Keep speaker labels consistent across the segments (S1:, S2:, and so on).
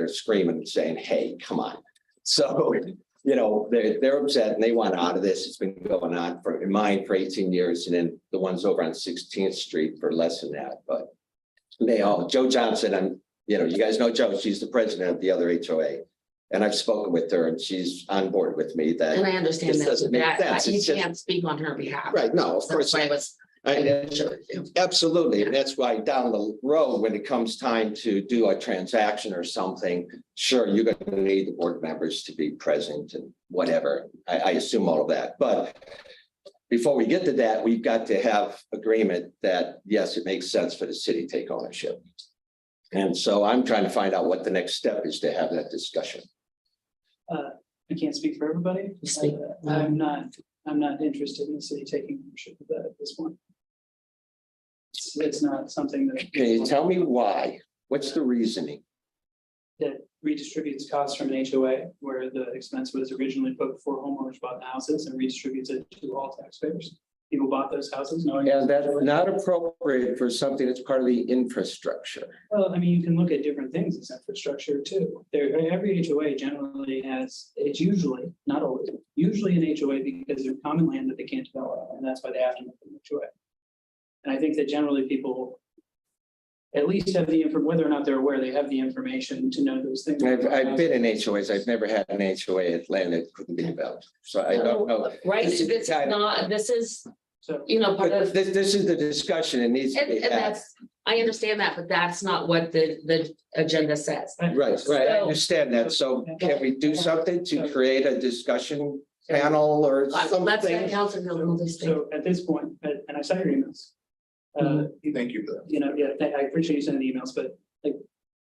S1: they're screaming and saying, hey, come on. So, you know, they're, they're upset and they want out of this. It's been going on for, in mine for eighteen years and then the ones over on Sixteenth Street for less than that, but they all, Joe Johnson, I'm, you know, you guys know Joe, she's the president of the other HOA. And I've spoken with her and she's on board with me
S2: And
S1: that,
S2: I understand
S1: This
S2: that,
S1: doesn't make
S2: that-
S1: sense.
S2: you
S1: It's just-
S2: can't speak on her behalf.
S1: right, no, of
S2: That's
S1: course.
S2: why I was.
S1: I- Absolutely, and that's why down the road, when it comes time to do a transaction or something, sure, you're gonna need the board members to be present and whatever. I, I assume all of that, but before we get to that, we've got to have agreement that, yes, it makes sense for the city to take ownership. And so I'm trying to find out what the next step is to have that discussion.
S3: I can't speak for everybody.
S2: You speak.
S3: Uh, I'm not, I'm not interested in the city taking ownership of that at this point. It's, it's not something that.
S1: Can you tell me why? What's the reasoning?
S3: That redistributes costs from an HOA where the expense was originally put before homeowners bought the houses and redistributes it to all taxpayers. People bought those houses knowing.
S1: And that's not appropriate for something that's part of the infrastructure.
S3: Well, I mean, you can look at different things as infrastructure too. There, every HOA generally has, it's usually, not always, usually an HOA because they're common land that they can't develop, and that's why they have to make an HOA. And I think that generally people at least have the, infor- whether or not they're aware, they have the information to know those things.
S1: I've, I've been in HOAs. I've never had an HOA at land that couldn't be developed. So I don't know.
S2: Right,
S1: This is-
S2: this is not, this is,
S3: So,
S2: you know, part
S1: But
S2: of,
S1: this, this is the discussion. It needs to
S2: and,
S1: be
S2: and
S1: had.
S2: that's, I understand that, but that's not what the, the agenda says.
S1: Right, right. I
S2: So-
S1: understand that. So can we do something to create a discussion panel or
S2: Uh, Let's let
S1: something?
S2: council handle this thing.
S3: so at this point, and and I saw your emails. Uh, you-
S4: Thank you for that.
S3: you know, yeah, thank- I appreciate you sending the emails, but like,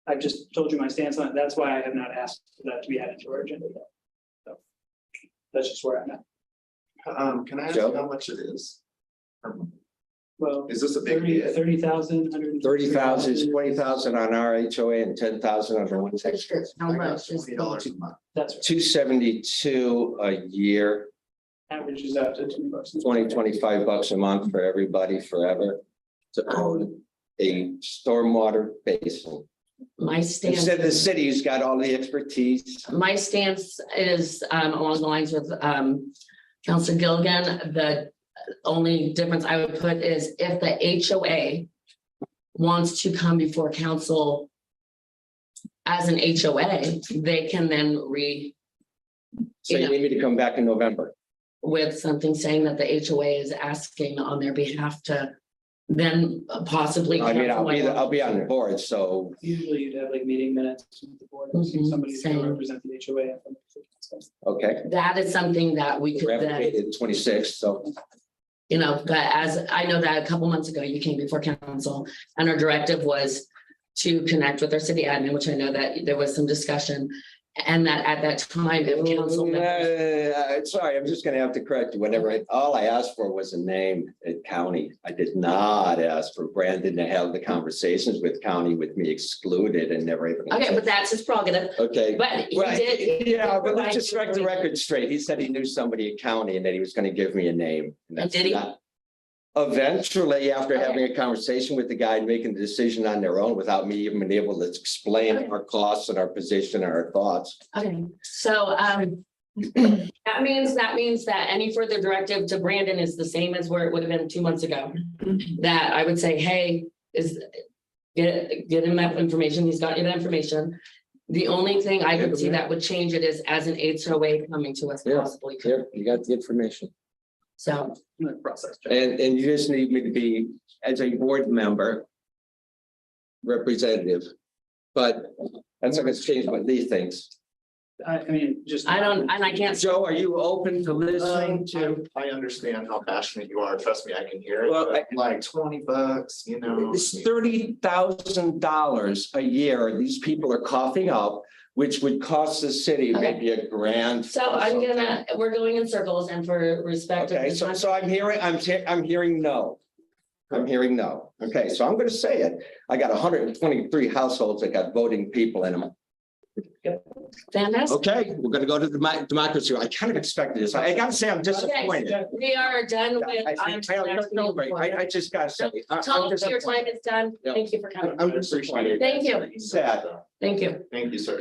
S3: I've just told you my stance on it. That's why I have not asked for that to be added to our agenda yet. So That's just where I'm at.
S4: Um, can I ask
S1: Joe?
S4: how much it is? Um,
S3: Well,
S4: Is this a big
S3: thirty,
S4: deal?
S3: thirty thousand, hundred.
S1: Thirty thousand, twenty thousand on our HOA and ten thousand on the one section.
S2: How much is,
S4: Twenty dollars a month.
S3: That's right.
S1: Two seventy-two a year,
S3: averages out to twenty bucks.
S1: 20, 25 bucks a month for everybody forever. To own a stormwater basin.
S2: my stance,
S1: Instead, the city's got all the expertise.
S2: my stance is, um, along the lines with, um, Council Gilligan, the only difference I would put is if the HOA wants to come before council as an HOA, they can then re,
S1: So you
S2: Yeah.
S1: need me to come back in November.
S2: with something saying that the HOA is asking on their behalf to then possibly.
S1: I mean, I'll be,
S2: cancel my-
S1: I'll be on the board, so
S3: Usually you'd have like meeting minutes with the board, and
S2: Mhm,
S3: somebody who's
S2: same.
S3: gonna represent the HOA.
S1: okay.
S2: That is something that we could then,
S1: Twenty sixth, so
S2: you know, but as I know that a couple months ago, you came before council and our directive was to connect with our city admin, which I know that there was some discussion. And that at that time, if
S1: Oh,
S2: council members,
S1: Mm, Uh, sorry, I'm just gonna have to correct you. Whatever, I- all I asked for was a name at county. I did not ask for Brandon to have the conversations with county with me excluded and never even.
S2: okay, but that's his prerogative,
S1: Okay.
S2: but he
S1: Well,
S2: did.
S1: Yeah, but let's just strike the record straight. He said he knew somebody at county and that he was gonna give me a name. that's
S2: did he?
S1: not- Eventually, after
S2: Okay.
S1: having a conversation with the guy and making the decision on their own without me even being able to explain
S2: Okay.
S1: our costs and our position and our thoughts.
S2: Okay, so, um, that means, that means that any further directive to Brandon is the same as where it would have been two months ago. That I would say, hey, is, get, get him that information, he's got you that information. The only thing I could see that would change it is as an HOA coming to us
S1: Yeah.
S2: possibly,
S1: Here, you got the information.
S2: so,
S3: Process.
S1: And, and you just need me to be, as a board member, representative, but that's not gonna change what Lee thinks.
S3: I, I mean, just.
S2: I don't, and I can't.
S1: Joe, are you open to listening
S2: Uh,
S1: to?
S4: Um, I I understand how passionate you are. Trust me, I can hear it.
S1: Well,
S4: but Like twenty bucks, you know.
S1: It's thirty thousand dollars a year these people are coughing up, which would cost the city
S2: Okay.
S1: maybe a grand.
S2: So I'm gonna, we're going in circles and for respect. of
S1: Okay,
S2: the
S1: so, so I'm hearing, I'm, te- I'm hearing no. I'm hearing no. Okay, so I'm gonna say it. I got hundred and twenty-three households that got voting people in them.
S2: Fantastic.
S1: Okay, we're gonna go to the demo- democracy. I kind of expected this. I gotta say, I'm disappointed.
S3: Okay.
S2: We are done
S1: I-
S2: with.
S1: I- I-
S2: items
S1: no,
S2: next
S1: no,
S2: meeting.
S1: wait, I, I just gotta say. I- I'm
S2: Tom, your
S1: disappointed.
S2: time is done.
S1: Yeah.
S2: Thank you for coming.
S1: I'm disappointed.
S2: Thank you.
S1: Sad.
S2: Thank you.
S4: Thank you, sir.